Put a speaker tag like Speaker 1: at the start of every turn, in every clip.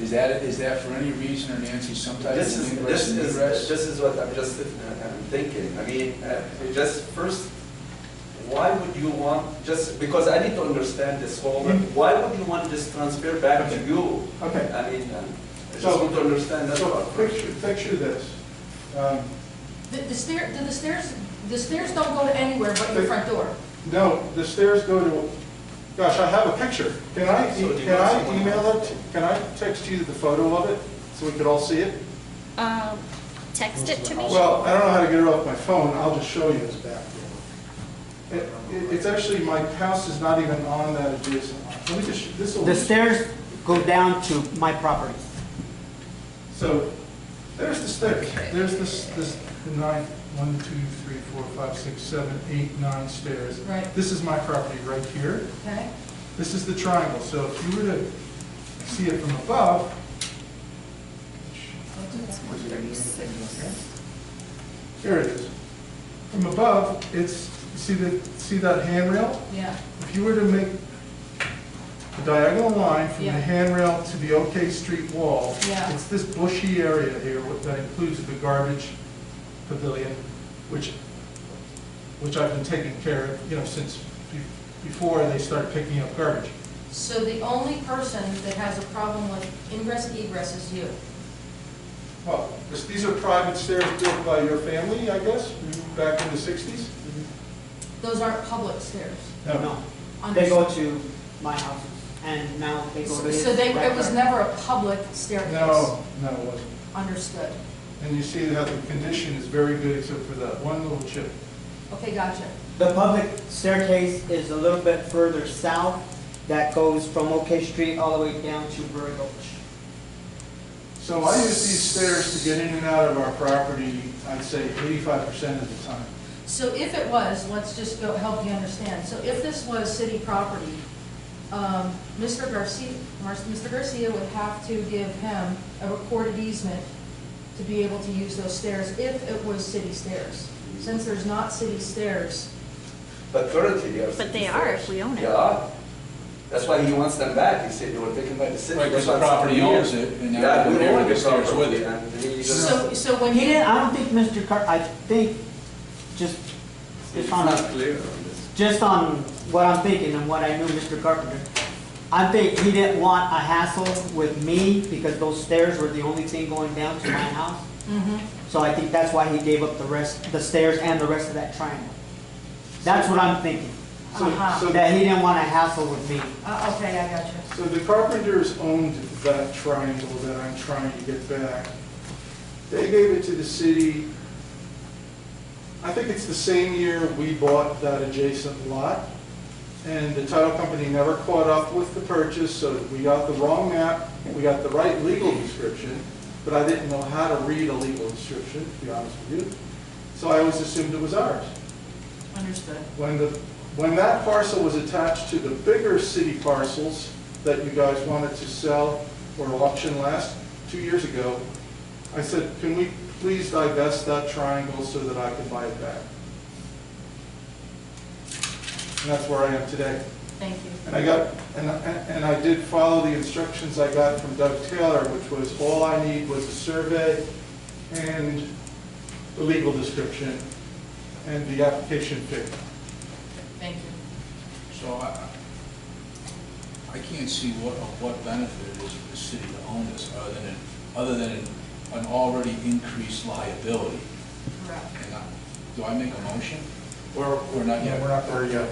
Speaker 1: Is that, is that for any reason or Nancy, some type
Speaker 2: This
Speaker 1: of
Speaker 2: is,
Speaker 1: ingress
Speaker 2: this
Speaker 1: and
Speaker 2: is,
Speaker 1: egress?
Speaker 2: this is what I'm just, I'm thinking, I mean, uh, just first, why would you want, just, because I need to understand this whole,
Speaker 1: Mm-hmm.
Speaker 2: why would you want this transfer back to you?
Speaker 3: Okay.
Speaker 2: I mean, um, I just
Speaker 3: So-
Speaker 2: want to understand that
Speaker 3: So
Speaker 2: part.
Speaker 3: picture, picture this. Um,
Speaker 4: The the stair, the the stairs, the stairs don't go to anywhere but your front door.
Speaker 3: No, the stairs go to, gosh, I have a picture. Can I, e,
Speaker 2: So do you
Speaker 3: can
Speaker 2: want
Speaker 3: I
Speaker 2: someone-
Speaker 3: email it? Can I text you the photo of it so we could all see it?
Speaker 5: Um, text it to me.
Speaker 3: Well, I don't know how to get it off my phone, I'll just show you this back door. It- it- It's actually, my house is not even on that adjacent line. Let me just, this will.
Speaker 6: The stairs go down to my property.
Speaker 3: So, there's the stairs, there's this, this nine, one, two, three, four, five, six, seven, eight, nine stairs.
Speaker 4: Right.
Speaker 3: This is my property right here.
Speaker 4: Okay?
Speaker 3: This is the triangle, so if you were to see it from above, here it is. From above, it's, see the, see that handrail?
Speaker 4: Yeah,
Speaker 3: If you were to make a diagonal line from the
Speaker 4: Yeah.
Speaker 3: handrail to the OK Street wall,
Speaker 4: Yeah.
Speaker 3: it's this bushy area here what- that includes the garbage pavilion, which, which I've been taking care of, you know, since be- before they started picking up garbage.
Speaker 4: so the only person that has a problem with ingress egress is you.
Speaker 3: Well, this- these are private stairs built by your family, I guess, back in the 60s?
Speaker 4: Those aren't public stairs.
Speaker 6: No, they go to my house, and now they go to.
Speaker 4: So they, it was
Speaker 6: Right.
Speaker 4: never a public staircase.
Speaker 3: No, no, it wasn't.
Speaker 4: Understood.
Speaker 3: And you see how the condition is very good except for that one little chip.
Speaker 4: Okay, gotcha.
Speaker 6: The public staircase is a little bit further south that goes from OK Street all the way down to Burry Gulch.
Speaker 3: So I use these stairs to get in and out of our property, I'd say 85% of the time.
Speaker 4: So if it was, let's just go, help you understand. So if this was city property, um, Mr. Garcia, Mar- Mr. Garcia would have to give him a recorded easement to be able to use those stairs if it was city stairs. Since there's not city stairs,
Speaker 2: But currently, they are.
Speaker 5: But they are if we own it.
Speaker 2: They are. That's why he wants them back, he said they were taken by the city.
Speaker 1: Right, 'cause the
Speaker 2: That's why it's
Speaker 1: property
Speaker 2: here.
Speaker 1: owns it, and now
Speaker 2: Yeah,
Speaker 1: they're
Speaker 2: we
Speaker 1: doing
Speaker 2: own
Speaker 1: the
Speaker 2: the
Speaker 1: stairs with
Speaker 2: property,
Speaker 1: it.
Speaker 2: and he just-
Speaker 4: so, so when
Speaker 6: He
Speaker 4: you.
Speaker 6: didn't, I don't think Mr. Car, I think, just,
Speaker 2: It's
Speaker 6: just on,
Speaker 2: not clear on this.
Speaker 6: just on what I'm thinking and what I knew Mr. Carpenter, I think he didn't want a hassle with me because those stairs were the only thing going down to my house.
Speaker 4: Mhm.
Speaker 6: So I think that's why he gave up the rest, the stairs and the rest of that triangle. That's what I'm thinking,
Speaker 3: So-
Speaker 4: Uh-huh.
Speaker 3: so-
Speaker 6: that he didn't want a hassle with me.
Speaker 4: Uh, okay, I got you.
Speaker 3: So the carpenters owned that triangle that I'm trying to get back. They gave it to the city, I think it's the same year we bought that adjacent lot. And the title company never caught up with the purchase, so we got the wrong map, we got the right legal description, but I didn't know how to read a legal description, to be honest with you. So I always assumed it was ours.
Speaker 4: Understood.
Speaker 3: When the, when that parcel was attached to the bigger city parcels that you guys wanted to sell or auction last, two years ago, I said, can we please divest that triangle so that I can buy it back? And that's where I am today.
Speaker 4: Thank you.
Speaker 3: And I got, and, and and I did follow the instructions I got from Doug Taylor, which was all I need was a survey and the legal description and the application fee.
Speaker 4: Thank you.
Speaker 1: So I, I can't see what, of what benefit it is for the city to own this, other than, other than an already increased liability.
Speaker 4: Correct.
Speaker 1: And I- Do I make a motion?
Speaker 3: We're,
Speaker 1: We're not yet.
Speaker 3: We're not there yet.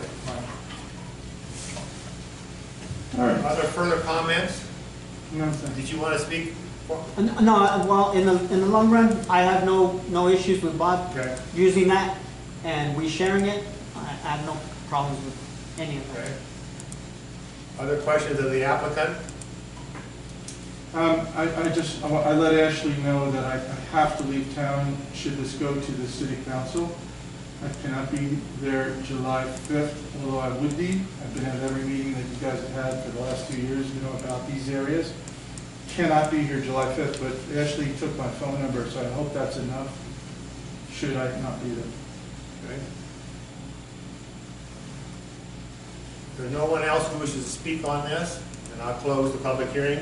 Speaker 7: Are there further comments? Did you want to speak?
Speaker 6: N- No, well, in the, in the long run, I have no, no issues with Bob
Speaker 3: Okay.
Speaker 6: using that and we sharing it. I I have no problems with any of that.
Speaker 7: Okay. Other questions of the applicant?
Speaker 3: Um, I, I just, I wa- I let Ashley know that I, I have to leave town should this go to the city council. I cannot be there July fifth, although I would be. I've been at every meeting that you guys have had for the last two years, you know, about these areas. Cannot be here July fifth, but Ashley took my phone number, so I hope that's enough, should I not be there.
Speaker 7: Okay. There's no one else who wishes to speak on this, and I'll close the public hearing.